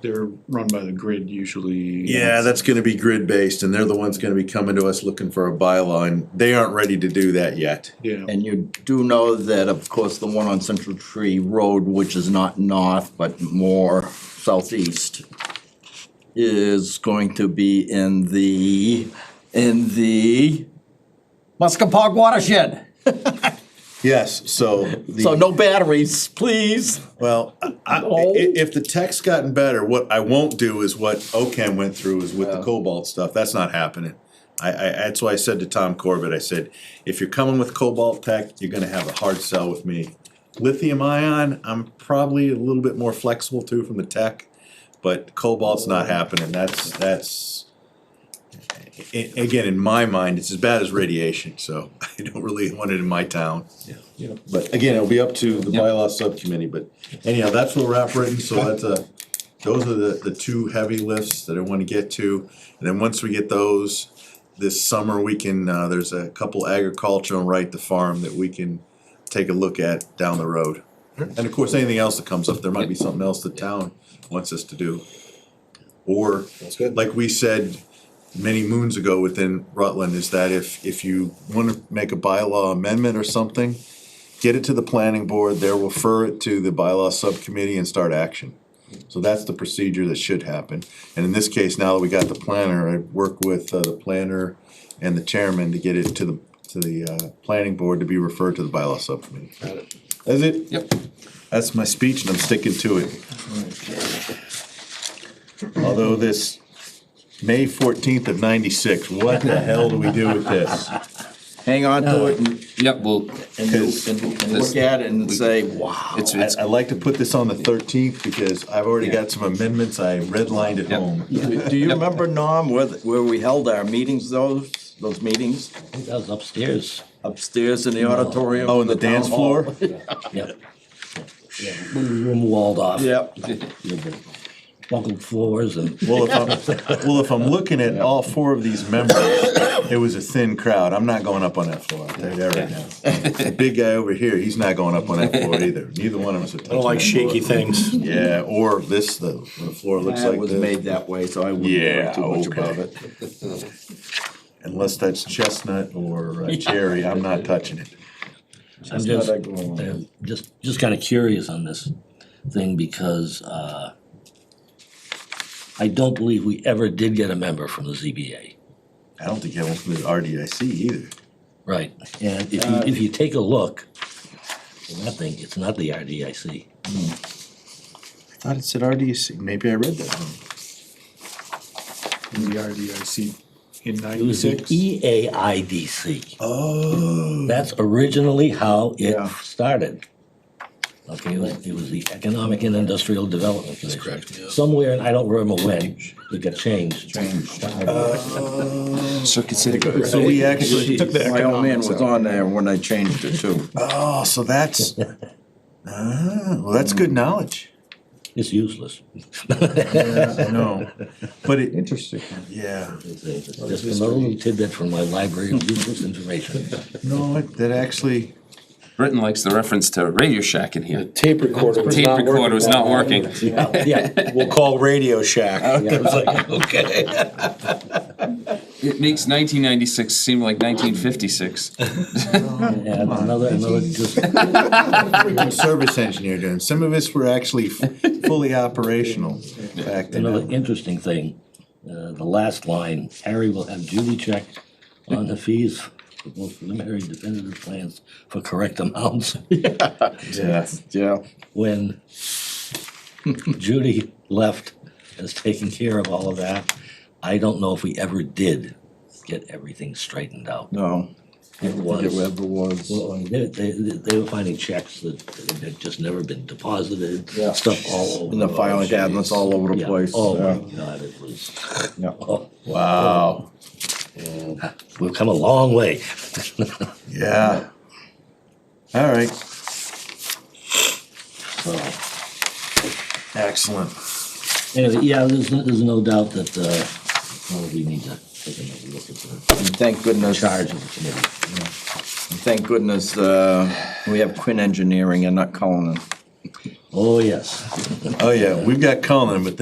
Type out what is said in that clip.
they're run by the grid usually. Yeah, that's gonna be grid-based, and they're the ones gonna be coming to us looking for a bylaw, and they aren't ready to do that yet. Yeah, And you do know that, of course, the one on Central Tree Road, which is not north but more southeast, is going to be in the, in the Muskapog watershed. Yes, so. the- So no batteries, please. Well, I, I- i- if the tech's gotten better, what I won't do is what OCAM went through is with the Yeah. cobalt stuff. That's not happening. I, I, that's why I said to Tom Corbett, I said, if you're coming with cobalt tech, you're gonna have a hard sell with me. Lithium ion, I'm probably a little bit more flexible too from the tech, but cobalt's not happening. That's, that's. a- again, in my mind, it's as bad as radiation, so I don't really want it in my town. yeah. But again, it'll be up to the Yeah. bylaw subcommittee, but anyhow, that's where we're at, Britton, so that's a, those are the, the two heavy lifts that I wanna get to. And then once we get those, this summer, we can, uh, there's a couple agricultural right to farm that we can take a look at down the road. And of course, anything else that comes up, there might be something else the town wants us to do. Or, like we said many moons ago within Rutland, is that if, if you wanna make a bylaw amendment or something, get it to the planning board, they'll refer it to the bylaw subcommittee and start action. So that's the procedure that should happen, and in this case, now that we got the planner, I work with uh, the planner and the chairman to get it to the, to the, uh, planning board to be referred to the bylaw subcommittee. That's it? Yep. That's my speech and I'm sticking to it. Although this May fourteenth of ninety-six, what the hell do we do with this? Hang on to it and, Yep, well, and Because- and- and look at it and say, wow. it's, I- it's, I'd like to put this on the thirteenth because I've already got some amendments I redlined at Yep. home. Do do you remember, Norm, where, the- where we held our meetings, those, those meetings? That was upstairs. Upstairs in the auditorium. Oh, and of the town dance hall. floor? Yep. Yeah, room walled off. Yep. Buckled floors and. Well, if I'm, well, if I'm looking at all four of these members, it was a thin crowd. I'm not going up on that floor. I'll tell you that right now. The big guy over here, he's not going up on that floor either. Neither one of us are touching. I don't like that floor. shaky things. Yeah, or this, the, the floor looks That like was this. made that way, so I wouldn't Yeah, worry too much okay. about it. Unless that's chestnut or uh, cherry, I'm not touching it. I'm just, uh, just, just kinda curious on this thing because, uh, I don't believe we ever did get a member from the ZBA. I don't think I went to the RDIC either. Right, and if you, if you take a look, that thing, it's not the RDIC. I thought it said RDIC. Maybe I read that wrong. In the RDIC in It was E the ninety-six. EAIDC. Oh. That's originally how it started. Okay, it was, it was the Economic and Industrial Development Commission. Somewhere, and I don't remember when, it got changed. Circuit City. So we actually took the My old man economics was out. on there when I changed it too. Oh, so that's, ah, well, that's good knowledge. It's useless. Yeah, I know. But it, Interesting. yeah, Just another little tidbit from my library of useless information. no, it- that actually, Britton likes the reference to Radio Shack in here. Tape recorder was Tape not working. recorder was not working. Yeah, We'll call Radio Shack. okay. It makes nineteen ninety-six seem like nineteen fifty-six. And another, another just freaking service engineer doing, some of us were actually f- fully operational back Another then. interesting thing, uh, the last line, Harry will have Judy check on the fees for both preliminary and definitive plans for correct amounts Yeah. Yeah. when Judy left as taking care of all of that. I don't know if we ever did get everything straightened out. No. It It was, ever was. well, they, they, they were finding checks that that had just never been deposited, Yeah. stuff all over. And the filing cabinets all over the Yeah. place. Oh yeah. my God, it was, Yeah. oh, Wow, ah, we've come a long way. yeah. All right, So, excellent. Anyway, yeah, there's, no- there's no doubt that, uh, probably need to take another look at the And Thank goodness, charge of the committee. thank goodness, uh, we have Quinn Engineering and not Cullinan. Oh, yes. Oh, yeah, we've got Cullen, but